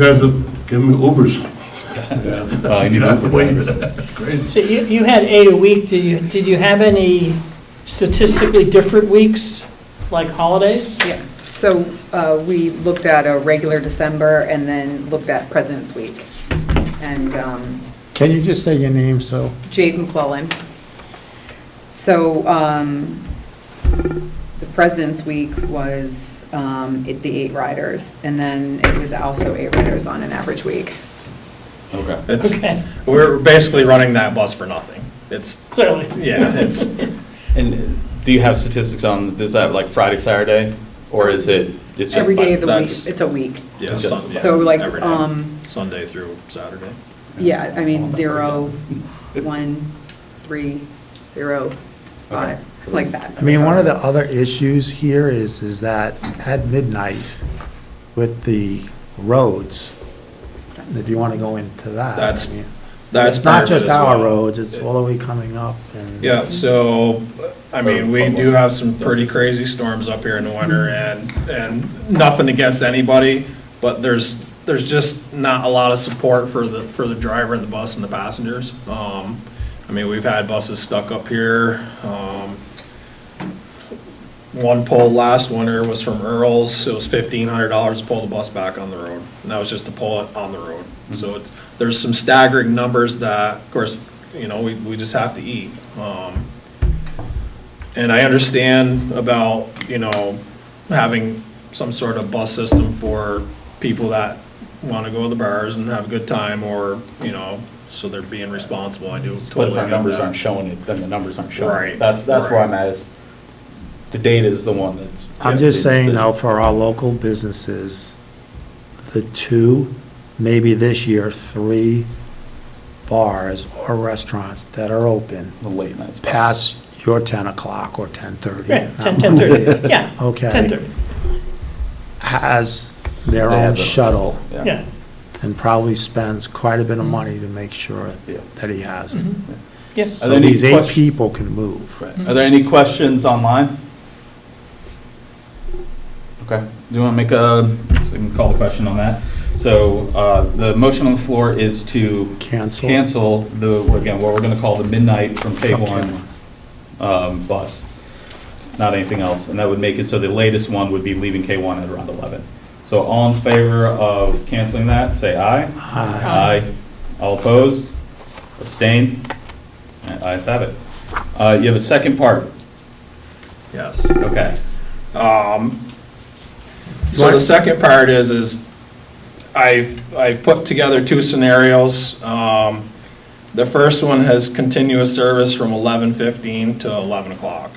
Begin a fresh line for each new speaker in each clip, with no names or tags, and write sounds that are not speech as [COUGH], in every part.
Guys, uh, give me Ubers.
[LAUGHS] Well, I need
You don't have to
Uber
wait.
drivers.
That's crazy.
So you, you had eight a week, did you, did you have any statistically different weeks, like holidays?
Yeah, so uh, we looked at a regular December and then looked at President's Week. And um,
Can you just say your name, so?
Jade McClellan. So um, the President's Week was um, it- the eight riders, and then it was also eight riders on an average week.
Okay.
It's,
Okay,
we're basically running that bus for nothing. It's,
clearly. [LAUGHS]
[LAUGHS]
yeah, it's,
And do you have statistics on, is that like Friday, Saturday? Or is it, it's just?
Every day of the week,
that's-
it's a week.
yeah,
Just-
Sun- yeah,
So like,
every day.
um,
Sunday through Saturday.
yeah, I mean, zero, one, three, zero, five, like that.
I mean, one of the other issues here is, is that at midnight with the roads, if you want to go into that. I
That's
mean,
That's
It's not
part of it
just
as
our
well.
roads, it's all the way coming up. and-
Yeah, so, I mean, we do have some pretty crazy storms up here in the winter and,
Mm-hmm.
and nothing against anybody, but there's, there's just not a lot of support for the, for the driver and the bus and the passengers. Um, I mean, we've had buses stuck up here, um, one pull last winter was from Earl's, it was fifteen hundred dollars to pull the bus back on the road, and that was just to pull it on the road.
Mm-hmm.
So it's, there's some staggering numbers that, of course, you know, we, we just have to eat. Um, And I understand about, you know, having some sort of bus system for people that wanna go to the bars and have a good time, or, you know, so they're being responsible, I do
But
totally
if our
get
numbers
that.
aren't showing it, then the numbers aren't showing. it.
Right,
That's, that's where
right.
I'm at is, the data is the one that's.
I'm just saying though, for our local businesses, the two, maybe this year, three bars or restaurants that are open
The late night spots.
past your 10 o'clock or 10:30.
Right,
not
10, 10:30,
[LAUGHS] later,
yeah.
Okay.
10:30,
Has their
They have
own
their-
shuttle
yeah.
and probably spends quite a bit of money to make sure
Yeah.
that he has it.
Yeah.
So
Are there any
these eight
question-
people can move.
Hmm.
Right. Are there any questions online? Okay, do you want to make a, so we can call a question on that? So uh, the motion on the floor is to
Cancel.
cancel the, again, what we're going to call the midnight from K
From
one um, bus, not anything else. And that would make it so the latest one would be leaving K one at around 11. So all in favor of canceling that, say aye.
Aye.
Aye. All opposed? Abstain? Ayes have it. Uh, You have a second part.
Yes.
Okay.
So the second part is, is I've, I've put together two scenarios. Um, The first one has continuous service from 11:15 to 11 o'clock,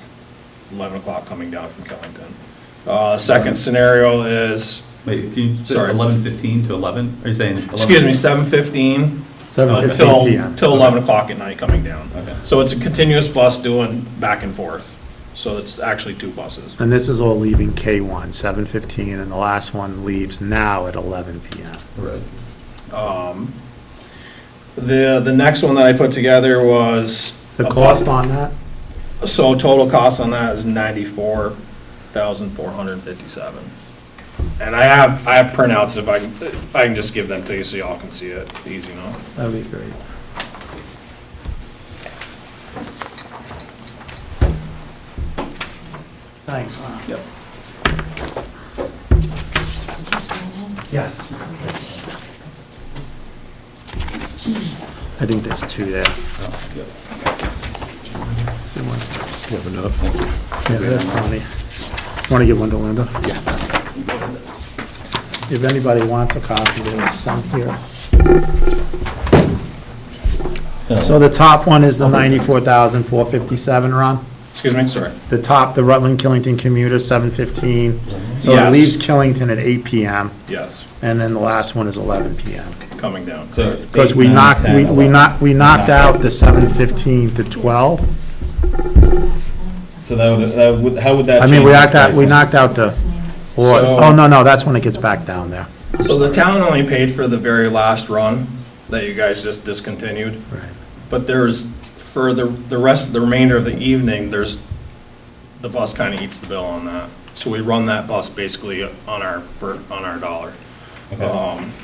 11 o'clock coming down from Killington. Uh, Second scenario is,
Wait, can you,
Sorry.
sorry, eleven fifteen to eleven? Are you saying? 11?
excuse me, 7:15
Uh,
until,
7:15 PM.
till 11 o'clock at night coming down.
Okay.
So it's a continuous bus doing back and forth. So it's actually two buses.
And this is all leaving K1, 7:15, and the last one leaves now at 11 PM.
Right.
The, the next one that I put together was.
The
a bu-
cost on that?
So total cost on that is ninety-four thousand four hundred fifty-seven. And I have, I have printouts if I, can I can just give them to you so y'all can see it easy enough.
That'd be great. Thanks, Ron. Yep. Yes. I think there's two there.
You have enough?
Yeah, there's plenty. Want to give one to Linda? Yeah. If anybody wants a copy, there's some here. So the top one is the 94,457, Ron?
Excuse me, sorry.
The top, the Rutland-Killington commuter, 715. So it
Yes.
leaves Killington at 8 PM,
Yes,
and then the last one is 11 PM.
coming down.
So it's.
Because
eight,
we
nine,
knocked,
10,
we we
11.
knocked, we knocked out the 715 to 12.
So that would, that would, how would that?
I mean,
change
we
the
knocked out, we
pricing?
knocked out the, or,
So-
oh, no, no, that's when it gets back down there.
So the town only paid for the very last run that you guys just discontinued.
Right.
But there's, for the, the rest, the remainder of the evening, there's, the bus kind of eats the bill on that. So we run that bus basically on our, for, on our dollar.
Okay.
Um,